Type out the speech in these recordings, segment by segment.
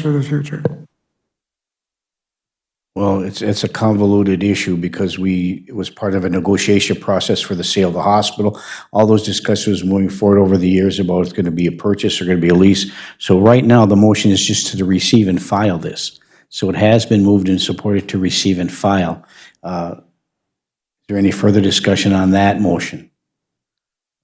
for the future? Well, it's, it's a convoluted issue because we, it was part of a negotiation process for the sale of the hospital. All those discussions moving forward over the years about it's going to be a purchase or going to be a lease. So right now, the motion is just to receive and file this. So it has been moved and supported to receive and file. Uh, Is there any further discussion on that motion?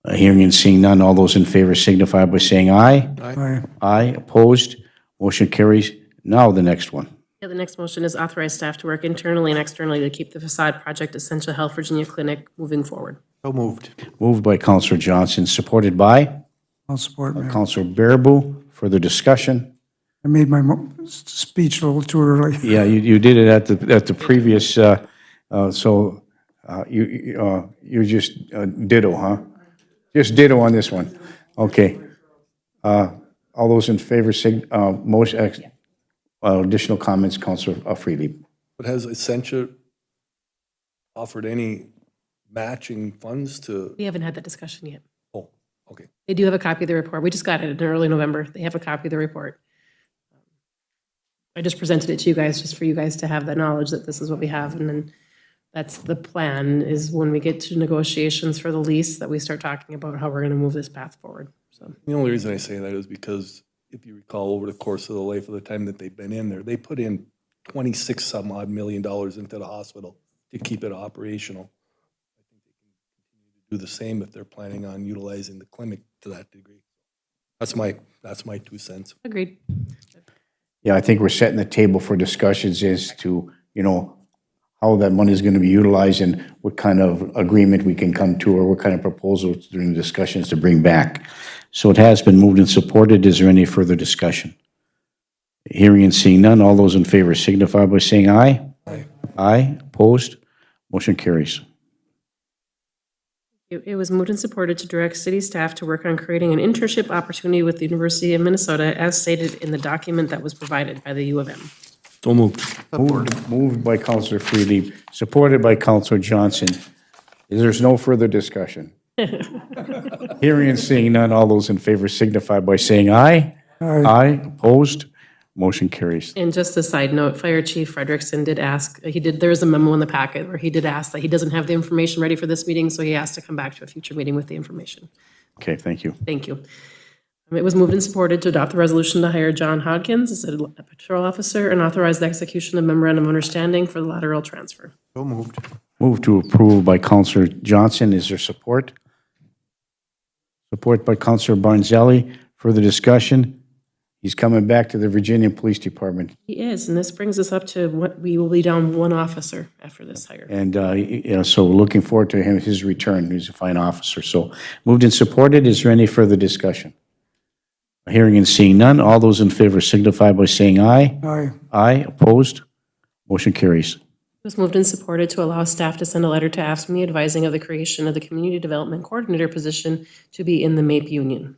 Uh, Hearing and seeing none, all those in favor signify by saying aye. Aye. Aye, opposed, motion carries. Now the next one. Yeah, the next motion is authorize staff to work internally and externally to keep the facade project Essential Health Virginia Clinic moving forward. So moved. Moved by Counselor Johnson, supported by I'll support, Mayor. Counselor Bearable. Further discussion? I made my mo- s- speech a little too early. Yeah, you, you did it at the, at the previous, uh, uh, so uh, you, you, uh, you just uh, ditto, huh? Just ditto on this one. Okay. Uh, All those in favor, sig, uh, motion, ex- uh, additional comments, Counselor uh, Freely? But has Essentia offered any matching funds to, We haven't had that discussion yet. oh, okay. They do have a copy of the report. We just got it in early November. They have a copy of the report. I just presented it to you guys, just for you guys to have the knowledge that this is what we have. And then that's the plan, is when we get to negotiations for the lease, that we start talking about how we're going to move this path forward. So The only reason I say that is because if you recall, over the course of the life of the time that they've been in there, they put in 26 some odd million dollars into the hospital to keep it operational. I think they can continue to Do the same if they're planning on utilizing the clinic to that degree. That's my, that's my two cents. agreed. Yeah, I think we're setting the table for discussions as to, you know, how that money is going to be utilized and what kind of agreement we can come to or what kind of proposals during the discussions to bring back. So it has been moved and supported. Is there any further discussion? Hearing and seeing none, all those in favor signify by saying aye. Aye. Aye, opposed, motion carries. It it was moved and supported to direct city staff to work on creating an internship opportunity with the University of Minnesota as stated in the document that was provided by the U of M. So moved. Moved moved by Counselor Freely, supported by Counselor Johnson. Is There's no further discussion. Hearing and seeing none, all those in favor signify by saying aye. Aye, opposed, motion carries. And just a side note, Fire Chief Frederickson did ask, he did, there is a memo in the packet where he did ask that he doesn't have the information ready for this meeting, so he asked to come back to a future meeting with the information. Okay, thank you. Thank you. Um, It was moved and supported to adopt the resolution to hire John Hodkins as a patrol officer and authorize the execution of memorandum of understanding for the lateral transfer. So moved. Move to approve by Counselor Johnson, is there support? Support by Counselor Barnzelli, further discussion? He's coming back to the Virginia Police Department. He is, and this brings us up to what, we will be down one officer after this hire. And, uh, y- you know, so we're looking forward to him, his return. He's a fine officer. So moved and supported. Is there any further discussion? Hearing and seeing none. All those in favor signify by saying aye. Aye. Aye. Opposed? Motion carries. It was moved and supported to allow staff to send a letter to AFSCME advising of the creation of the Community Development Coordinator position to be in the MAPE Union.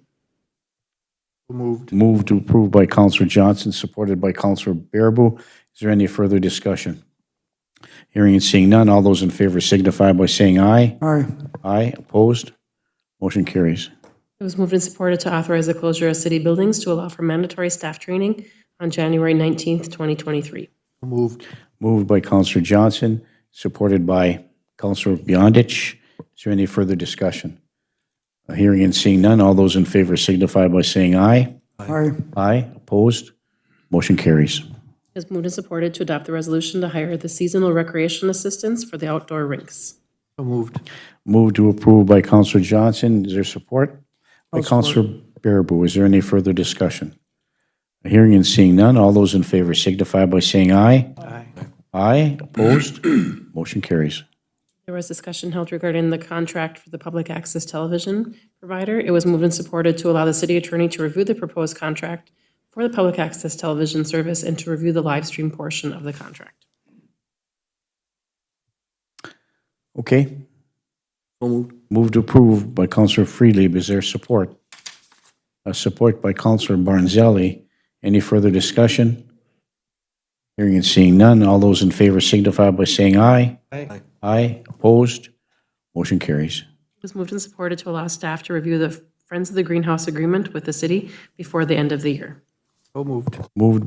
So moved. Moved to approve by Counselor Johnson, supported by Counselor Bearable. Is there any further discussion? Hearing and seeing none. All those in favor signify by saying aye. Aye. Aye. Opposed? Motion carries. It was moved and supported to authorize the closure of city buildings to allow for mandatory staff training on January 19th, 2023. So moved. Moved by Counselor Johnson, supported by Counselor Beyondich. Is there any further discussion? Hearing and seeing none, all those in favor signify by saying aye. Aye. Aye, opposed? Motion carries. It was moved and supported to adopt the resolution to hire the seasonal recreation assistants for the outdoor rinks. So moved. Moved to approve by Counselor Johnson, is there support? By Counselor Bearable, is there any further discussion? Hearing and seeing none, all those in favor signify by saying aye. Aye. Aye, opposed? Motion carries. There was discussion held regarding the contract for the public access television provider. It was moved and supported to allow the city attorney to review the proposed contract for the public access television service and to review the live stream portion of the contract. Okay, So moved. Moved to approve by Counselor Freely. Is there support? Uh, Support by Counselor Barnzelli. Any further discussion? Hearing and seeing none. All those in favor signify by saying aye. Aye. Aye. Opposed? Motion carries. It was moved and supported to allow staff to review the Friends of the Greenhouse agreement with the city before the end of the year. So moved. Moved